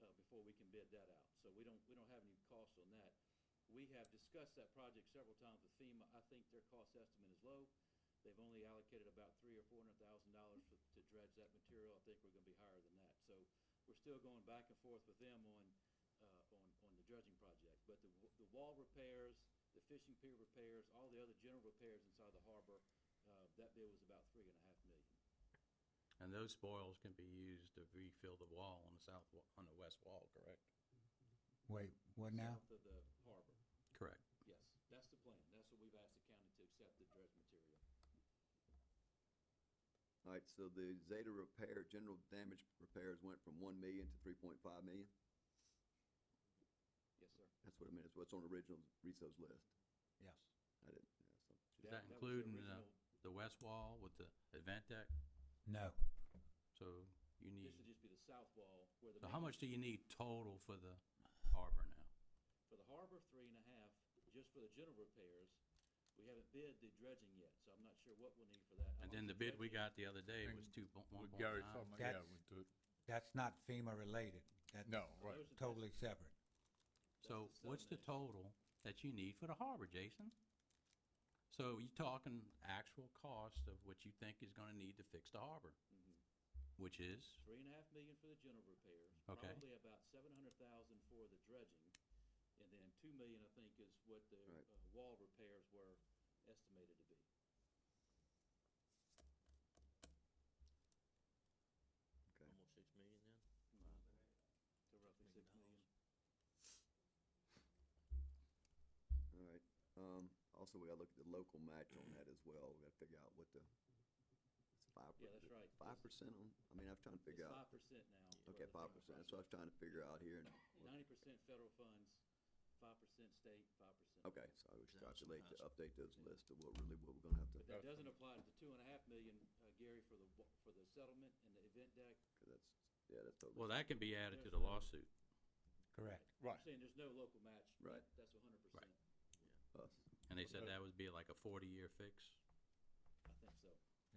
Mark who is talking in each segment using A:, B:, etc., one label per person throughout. A: uh, bid that out, so we don't, we don't have any costs on that. We have discussed that project several times with FEMA, I think their cost estimate is low. They've only allocated about three or four hundred thousand dollars to dredge that material, I think we're gonna be higher than that. So we're still going back and forth with them on, uh, on, on the dredging project. But the, w- the wall repairs, the fishing pier repairs, all the other general repairs inside the harbor, uh, that bid was about three and a half million.
B: And those spoils can be used to refill the wall on the south, wa- on the west wall, correct?
C: Wait, what now?
A: South of the harbor,
B: Correct.
A: yes, that's the plan, that's what we've asked the county to accept the dredge material.
D: All right, so the Zeta repair, general damage repairs went from one million to three point five million?
A: Yes, sir.
D: That's what I meant, it's what's on the original resource list.
C: Yes.
D: I didn't, yeah, so,
B: Is
A: was
B: that
A: the
B: including the,
A: original-
B: the west wall with the event deck?
C: No,
B: So you
A: This would
B: need,
A: just be the south wall where the.
B: so how
A: main-
B: much do you need total for the harbor now?
A: For the harbor, three and a half, just for the general repairs, we haven't bid the dredging yet, so I'm not sure what we'll need for that.
B: And then the bid we got the other day was two point, one
E: With
B: point
E: Gary's
B: five.
E: talking about, yeah,
C: That's-
E: with the,
C: that's not FEMA related. That's
E: no, right.
A: Those are-
C: Totally separate.
B: So
A: That's the
B: what's the
A: seven acres.
B: total that you need for the harbor, Jason? So you talking actual cost of what you think is gonna need to fix the harbor,
A: Mm-hmm.
B: which is?
A: Three and a half million for the general repairs.
B: Okay.
A: Probably about seven hundred thousand for the dredging, and then two million, I think, is what the, uh,
D: Right.
A: wall repairs were estimated to be.
D: okay.
F: Almost six million then?
A: So roughly
F: Million
A: six
F: dollars.
A: million.
D: All right, um, also, we gotta look at the local match on that as well, we gotta figure out what the, it's five.
A: Yeah, that's right.
D: Five percent on, I mean, I'm trying to
A: It's
D: figure out,
A: five percent now. for the
D: okay, five
A: FEMA
D: percent, that's
A: project.
D: what I was trying to figure out here, and,
A: Ninety percent federal funds, five percent state, five percent.
D: okay, so I was
F: That was
D: calculating to
F: impossible.
D: update those lists of what really, what we're gonna have to,
A: But that doesn't apply to the two and a half million, uh, Gary, for the, wa- for the settlement and the event deck.
D: cause that's, yeah, that's totally.
B: Well, that can be added to the
A: There's no-
B: lawsuit.
C: Correct.
A: I'm
E: Right.
A: saying there's no local match.
D: Right.
A: That- That's hundred percent,
D: us.
B: And they said that would be like a forty-year fix.
A: I think so.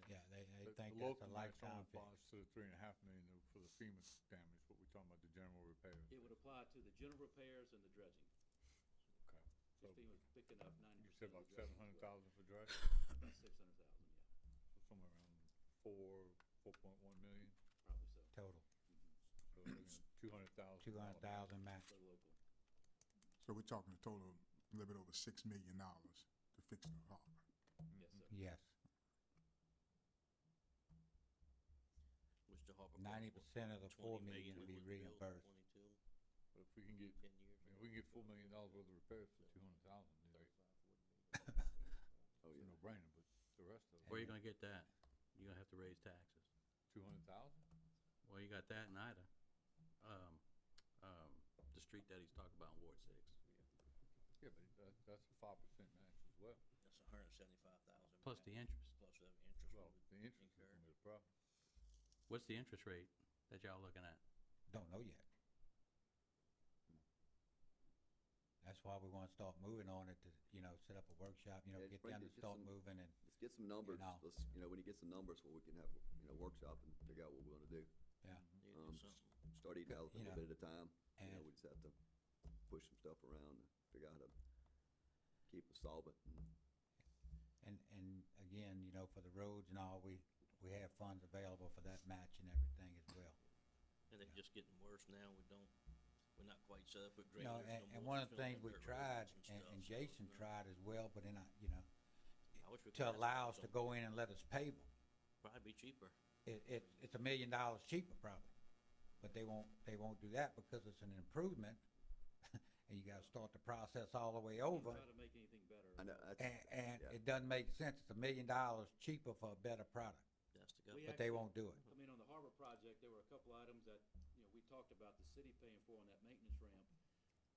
C: Yeah, they, they
E: The-
C: think
E: the
C: that's
E: local
C: a
E: match only
C: lifetime fix.
E: applies To the three and a half million though for the FEMA damage, what we're talking about, the general repairs.
A: It would apply to the general repairs and the dredging.
E: Okay. So
A: Just FEMA picking up ninety
E: you
A: percent.
E: said about seven hundred thousand for dredge,
A: About six hundred thousand, yeah,
E: so somewhere around four, four point one million,
A: probably so,
C: Total,
E: so two hundred thousand.
C: two hundred thousand match.
A: for the local.
B: Mm-hmm.
G: So we're talking a total of a little bit over six million dollars to fix the harbor.
A: Yes, sir.
C: Yes,
F: Which the harbor. cost,
C: ninety
F: what,
C: percent of the
F: 20
C: four million will
F: when
C: be
F: we built,
C: reimbursed.
F: Twenty-two,
E: But if we can get,
F: ten years.
E: I mean, if we can get four million dollars worth of repairs for two hundred thousand,
D: Oh,
E: it's
D: yeah.
E: a no-brainer, but the rest of
B: Where you
E: it,
B: gonna get that? You're gonna have to raise taxes.
E: two hundred thousand?
B: Well, you got that in Ida. Um, um, the street that he's talking about in Ward Six.
E: Yeah, but that, that's a five percent match as well.
F: That's a hundred and seventy-five thousand.
B: Plus the interest.
F: Plus the interest. we
E: Well, the
F: would
E: interest is
F: incur.
E: gonna be the problem.
B: What's the interest rate that y'all looking at?
C: Don't know yet. That's why we wanna start moving on it to, you know, set up a workshop, you know,
D: Yeah,
C: get
D: bring
C: them
D: the-
C: to
D: get
C: start
D: some-
C: moving and,
D: Let's get some numbers,
C: know.
D: let's, you know, when he gets some numbers, where we can have, you know, workshop and figure out what we're gonna do.
C: yeah.
F: Need to
E: mm-hmm.
F: do
D: Um,
F: something.
D: Start eating
C: Good,
D: elephant a
C: you
D: little
C: know,
D: bit at a time, you know,
C: and-
D: we just have to push some stuff around and figure out how to keep us solvent. and-
C: And, and again, you know, for the roads and all, we, we have funds available for that match and everything as well.
F: And it's just getting worse now, we don't, we're not quite set up with
C: You
F: graders
C: know,
F: no
C: and,
F: more.
C: and one
F: We're
C: of the
F: filling
C: things
F: in
C: we
F: dirt roads
C: tried, and,
F: stuff,
C: and
F: so
C: Jason
F: it's not-
C: tried as well, but then I, you know,
F: I wish we could
C: to
F: have
C: allow us
F: something.
C: to go in and let us pave them.
F: Probably be cheaper.
C: It, it, it's a million dollars cheaper probably, but they won't, they won't do that because it's an improvement. And you gotta start the process all the way
A: Try
C: over.
A: to make anything better.
D: I know, that's,
C: And, and
D: Yeah.
C: it doesn't make sense. It's a million dollars cheaper for a better product,
F: That's
A: We
F: the government.
C: but they
A: actually-
C: won't do it.
A: I mean, on the harbor project, there were a couple items that, you know, we talked about the city paying for on that maintenance ramp.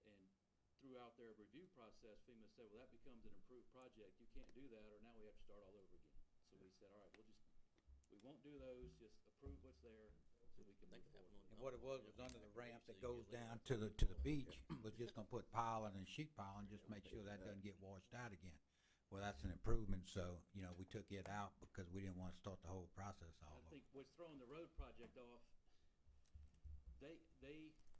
A: And throughout their review process, FEMA said, well, that becomes an improved project, you can't do that, or now we have to start all over again. So we said, all right, we'll just, we won't do those, just approve what's there, so we can move
F: Think that
A: forward.
F: one-
C: And what it was, was under the ramp that goes down to the, to the beach, was just gonna put piling and sheet piling, just make sure that doesn't get washed out again. Well, that's an improvement, so, you know, we took it out because we didn't wanna start the whole process all
A: I
C: over.
A: think what's throwing the road project off, they, they